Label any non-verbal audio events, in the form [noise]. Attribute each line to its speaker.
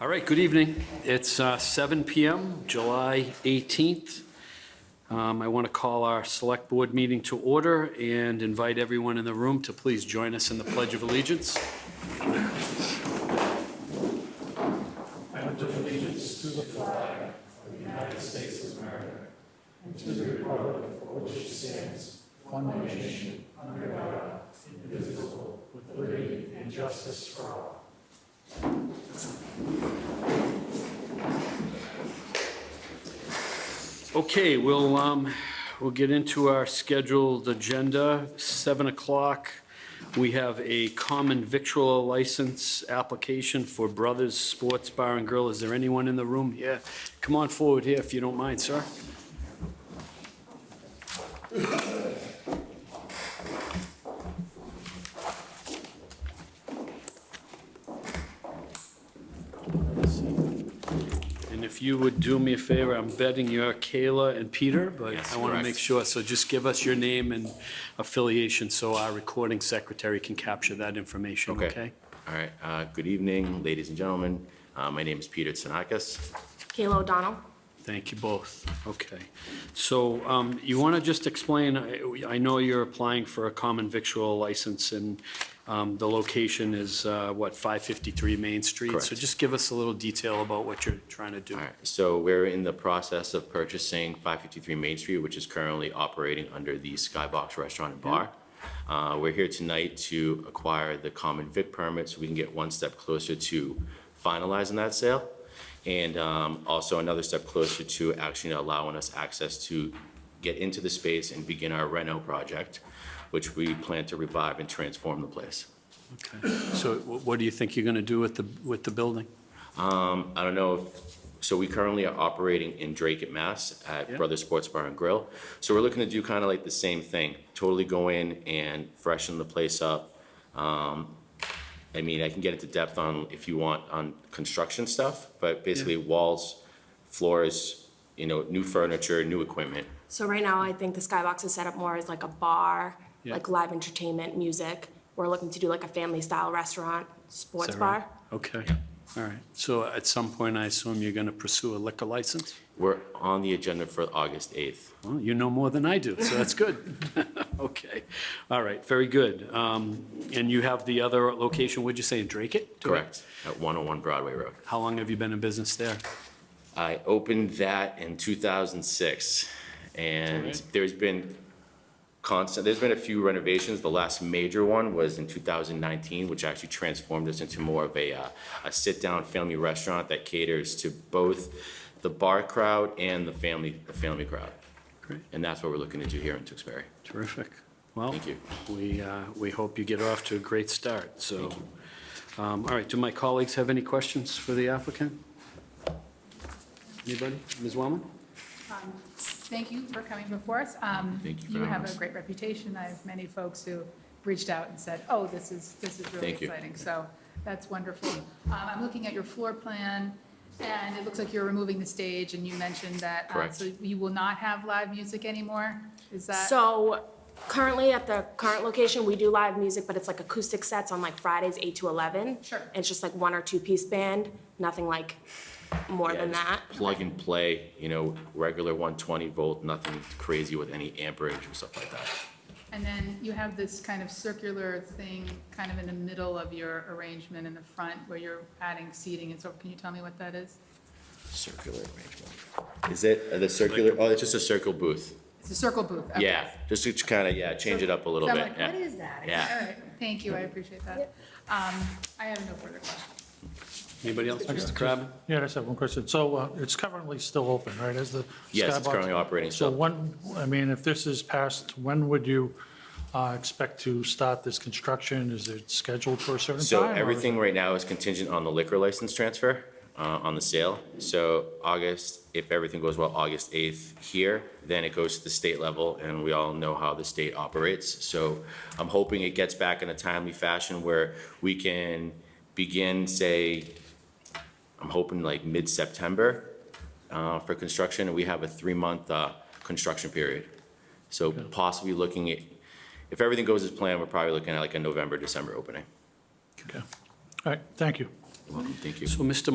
Speaker 1: All right, good evening. It's uh, 7 PM, July 18th. Um, I want to call our Select Board meeting to order and invite everyone in the room to please join us in the Pledge of Allegiance. Okay, we'll, um, we'll get into our scheduled agenda. Seven o'clock, we have a common victual license application for Brothers Sports Bar and Grill. Is there anyone in the room here? Come on forward here if you don't mind, sir. And if you would do me a favor, I'm betting you're Kayla and Peter, but I want to make sure, so just give us your name and affiliation so our recording secretary can capture that information, okay?
Speaker 2: All right, uh, good evening, ladies and gentlemen. Uh, My name is Peter Tsanakis.
Speaker 3: Kayla O'Donnell.
Speaker 1: Thank you both. Okay. So um, you want to just explain, I- I know you're applying for a common victual license and um, the location is, uh, what, 553 Main Street? So
Speaker 2: Correct.
Speaker 1: just give us a little detail about what you're trying to do.
Speaker 2: All right, so we're in the process of purchasing 553 Main Street, which is currently operating under the Skybox Restaurant and Bar. Uh, We're here tonight to acquire the common vic permit so we can get one step closer to finalizing that sale. And um, also another step closer to actually allowing us access to get into the space and begin our reno project, which we plan to revive and transform the place.
Speaker 1: Okay. So wh- what do you think you're going to do with the, with the building?
Speaker 2: Um, I don't know if, so we currently are operating in Drake at Mass
Speaker 1: Yeah.
Speaker 2: at Brothers Sports Bar and Grill. So we're looking to do kind of like the same thing, totally go in and freshen the place up. Um, I mean, I can get into depth on, if you want, on construction stuff, but basically walls, floors, you know, new furniture, new equipment.
Speaker 3: So right now, I think the Skybox is set up more as like a bar,
Speaker 1: Yeah.
Speaker 3: like live entertainment, music. We're looking to do like a family-style restaurant,
Speaker 1: Is
Speaker 3: sports
Speaker 1: that right?
Speaker 3: bar.
Speaker 1: Okay. All right. So at some point, I assume you're going to pursue a liquor license?
Speaker 2: We're on the agenda for August 8th.
Speaker 1: Well, you know more than I do, so that's good. [laughs] Okay, all right, very good. Um, And you have the other location, would you say, in Drake it?
Speaker 2: Correct, at 101 Broadway Road.
Speaker 1: How long have you been in business there?
Speaker 2: I opened that in 2006, and
Speaker 1: Alright.
Speaker 2: there's been constant, there's been a few renovations. The last major one was in 2019, which actually transformed us into more of a, uh, a sit-down family restaurant that caters to both the bar crowd and the family, the family crowd.
Speaker 1: Great.
Speaker 2: And that's what we're looking to do here in Tewksbury.
Speaker 1: Terrific. Well,
Speaker 2: Thank you.
Speaker 1: we, uh, we hope you get off to a great start, so. um, All right, do my colleagues have any questions for the applicant? Anybody? Ms. Wellman?
Speaker 4: Um, Thank you for coming before us. Um,
Speaker 2: Thank you for
Speaker 4: You
Speaker 2: having
Speaker 4: have
Speaker 2: us.
Speaker 4: a great reputation. I have many folks who reached out and said, oh, this is, this is really
Speaker 2: Thank you.
Speaker 4: exciting. So that's wonderful. Um, I'm looking at your floor plan, and it looks like you're removing the stage, and you mentioned that. uh,
Speaker 2: Correct.
Speaker 4: So you will not have live music anymore? Is that?
Speaker 3: So currently, at the current location, we do live music, but it's like acoustic sets on like Fridays, eight to eleven.
Speaker 4: Sure.
Speaker 3: And It's just like one or two-piece band, nothing like more
Speaker 2: Yeah,
Speaker 3: than
Speaker 2: just
Speaker 3: that.
Speaker 2: Plug and play, you know, regular 120 volt, nothing crazy with any amperage or stuff like that.
Speaker 4: And then you have this kind of circular thing kind of in the middle of your arrangement in the front where you're adding seating and so, can you tell me what that is?
Speaker 2: Circular arrangement. Is it the circular, oh, it's just a circle booth.
Speaker 4: It's a circle booth. okay.
Speaker 2: Yeah, just to kind of, yeah, change it up a little
Speaker 4: So I'm
Speaker 2: bit.
Speaker 4: like,
Speaker 2: yeah.
Speaker 4: what is that?
Speaker 2: Yeah.
Speaker 4: All right, thank you, I appreciate that. Um, I have no further questions.
Speaker 1: Anybody else? Mr. Crabbe?
Speaker 5: Yeah, I just have one question. So uh, it's currently still open, right, as the
Speaker 2: Yes, it's
Speaker 5: Skybox?
Speaker 2: currently operating
Speaker 5: So
Speaker 2: still.
Speaker 5: when, I mean, if this is passed, when would you uh, expect to start this construction? Is it scheduled for a certain time?
Speaker 2: So
Speaker 5: or-
Speaker 2: everything right now is contingent on the liquor license transfer, uh, on the sale. So August, if everything goes well, August 8th here, then it goes to the state level, and we all know how the state operates. So I'm hoping it gets back in a timely fashion where we can begin, say, I'm hoping like mid-September uh, for construction, and we have a three-month uh, construction period. So possibly looking at, if everything goes as planned, we're probably looking at like a November, December opening.
Speaker 5: Okay. All right, thank you.
Speaker 2: You're welcome, thank you.
Speaker 1: So, Mr.